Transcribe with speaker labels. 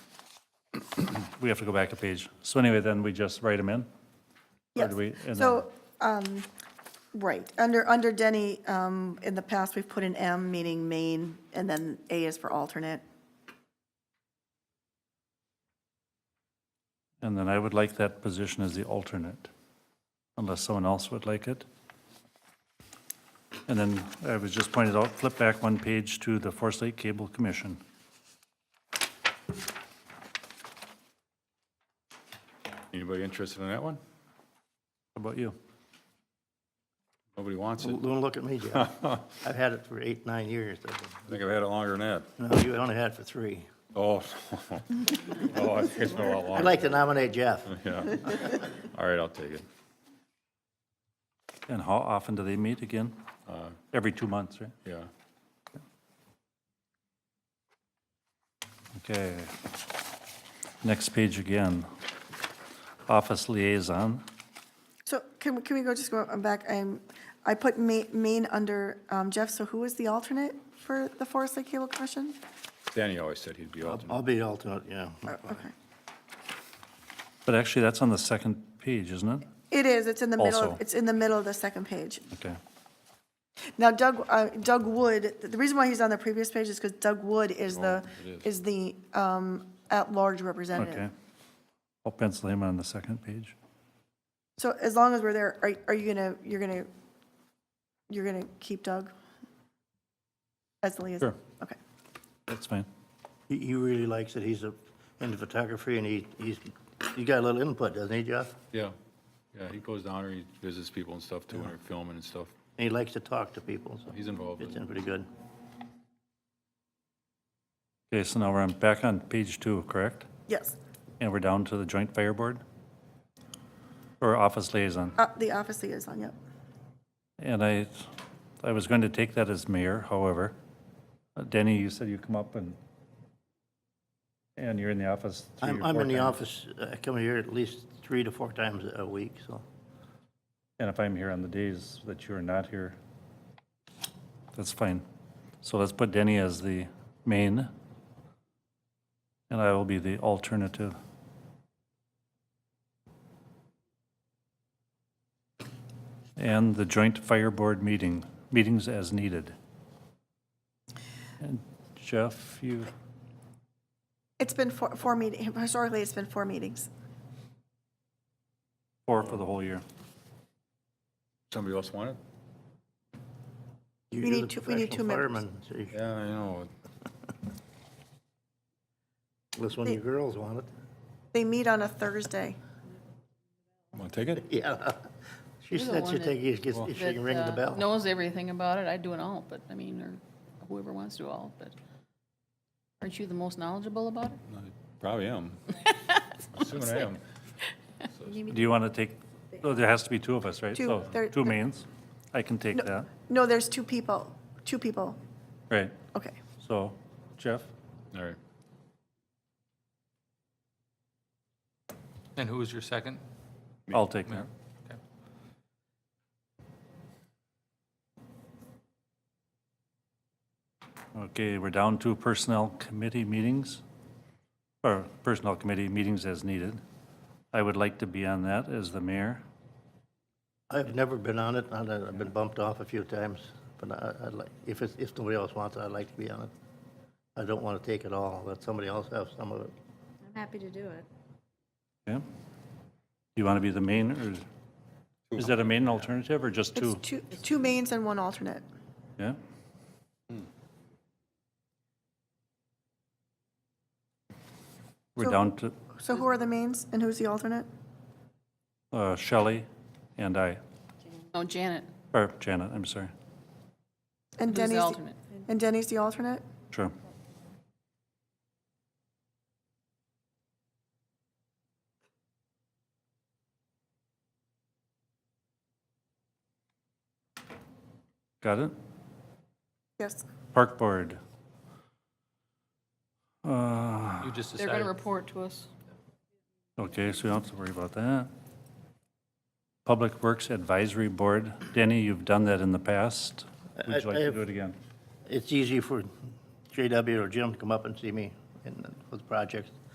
Speaker 1: we have to go back a page. So anyway, then we just write them in? Or
Speaker 2: Yes.
Speaker 1: do we- and
Speaker 2: So, um, right, under, under Denny, um, in the past, we've put an M, meaning main, and then A is for alternate.
Speaker 1: And then I would like that position as the alternate, unless someone else would like it. And then I was just pointed out, flip back one page to the Forest Lake Cable Commission.
Speaker 3: Anybody interested in that one?
Speaker 1: How about you?
Speaker 3: Nobody wants it?
Speaker 4: Don't look at me, Jeff. I've had it for eight, nine years. I think.
Speaker 3: I think I've had it longer than that.
Speaker 4: No, you only had it for three.
Speaker 3: Oh, oh, I think it's been a lot
Speaker 4: I'd
Speaker 3: longer.
Speaker 4: like to nominate Jeff.
Speaker 3: Yeah. All right, I'll take it.
Speaker 1: And how often do they meet again?
Speaker 3: Uh,
Speaker 1: Every two months, right?
Speaker 3: Yeah.
Speaker 1: Okay. Next page again. Office liaison.
Speaker 2: So can, we- can we go, just go back, I'm, I put ma- main under um, Jeff, so who is the alternate for the Forest Lake Cable Commission?
Speaker 3: Danny always said he'd be alternate.
Speaker 4: I'll be alternate, yeah.
Speaker 2: Oh, Okay.
Speaker 1: But actually, that's on the second page, isn't it?
Speaker 2: It is, it's in the middle,
Speaker 1: Also.
Speaker 2: it's in the middle of the second page.
Speaker 1: Okay.
Speaker 2: Now Doug, uh, Doug Wood, the reason why he's on the previous page is because Doug Wood is the, is the um, at-large
Speaker 1: Okay.
Speaker 2: representative.
Speaker 1: I'll pencil him on the second page.
Speaker 2: So as long as we're there, are, are you gonna, you're gonna, you're gonna keep Doug? As the liaison?
Speaker 1: Sure.
Speaker 2: Okay.
Speaker 1: That's fine.
Speaker 4: He, he really likes it. He's a- into photography and he, he's, he got a little input, doesn't he, Jeff?
Speaker 3: Yeah, yeah, he goes down there, he visits people and stuff too, and they're filming and stuff.
Speaker 4: And he likes to talk to people, so
Speaker 3: He's involved
Speaker 4: it's
Speaker 3: in it.
Speaker 4: been pretty good.
Speaker 1: Okay, so now we're on, back on page two, correct?
Speaker 2: Yes,
Speaker 1: And we're down to the joint fire board? Or office liaison?
Speaker 2: Uh, the office liaison, yep.
Speaker 1: And I, I was going to take that as mayor, however. Uh, Danny, you said you come up and, and you're in the office three or
Speaker 4: I'm,
Speaker 1: four
Speaker 4: I'm in the
Speaker 1: times.
Speaker 4: office, uh, I come here at least three to four times a week, so.
Speaker 1: And if I'm here on the days that you are not here, that's fine. So let's put Denny as the main, and I will be the alternative. And the joint fire board meeting, meetings as needed. And Jeff, you,
Speaker 2: It's been four, four meetings, historically, it's been four meetings.
Speaker 1: four for the whole year.
Speaker 3: Somebody else want it?
Speaker 4: You-
Speaker 2: We
Speaker 4: you're
Speaker 2: need
Speaker 4: the
Speaker 2: two- we need two
Speaker 4: professional
Speaker 2: members.
Speaker 4: fireman, so you-
Speaker 3: Yeah, I know.
Speaker 4: Unless one of your girls want it.
Speaker 2: They meet on a Thursday.
Speaker 3: Want to take it?
Speaker 4: Yeah. She
Speaker 5: You're the
Speaker 4: said she
Speaker 5: one that-
Speaker 4: take, if she can
Speaker 5: that,
Speaker 4: ring the
Speaker 5: uh,
Speaker 4: bell.
Speaker 5: Knows everything about it. I'd do an alt, but I mean, or whoever wants to do alt, but aren't you the most knowledgeable about it?
Speaker 3: Probably am. Soon I am.
Speaker 1: Do you want to take, oh, there has to be two of us, right?
Speaker 2: Two,
Speaker 1: So,
Speaker 2: there-
Speaker 1: Two mains. I can take that,
Speaker 2: No, there's two people, two people.
Speaker 1: right?
Speaker 2: Okay.
Speaker 1: So, Jeff?
Speaker 3: All right.
Speaker 6: And who was your second?
Speaker 1: I'll take that.
Speaker 6: Okay.
Speaker 1: Okay, we're down to Personnel Committee meetings, or Personnel Committee meetings as needed. I would like to be on that as the mayor.
Speaker 4: I've never been on it, and I've been bumped off a few times, but I, I'd like, if it's, if nobody else wants it, I'd like to be on it. I don't want to take it all, let somebody else have some of it.
Speaker 7: I'm happy to do it.
Speaker 1: Okay? Do you want to be the main, or is that a main alternative, or just
Speaker 2: It's
Speaker 1: two?
Speaker 2: two, two mains and one alternate.
Speaker 1: Yeah? We're down to
Speaker 2: So who are the mains and who's the alternate?
Speaker 1: uh, Shelley and I,
Speaker 5: Oh, Janet,
Speaker 1: or Janet, I'm sorry.
Speaker 2: And
Speaker 5: who's
Speaker 2: Denny's,
Speaker 5: the alternate?
Speaker 2: and Denny's the alternate?
Speaker 1: Sure. Got it?
Speaker 2: Yes.
Speaker 1: Park Board. Uh,
Speaker 6: You just
Speaker 5: They're going to
Speaker 6: decided,
Speaker 5: report to us.
Speaker 1: Okay, so you don't have to worry about that. Public Works Advisory Board. Danny, you've done that in the past. Would
Speaker 4: I-
Speaker 1: you like
Speaker 4: I
Speaker 1: to
Speaker 4: have-
Speaker 1: do it again?
Speaker 4: It's easy for JW or Jim to come up and see me in, with projects.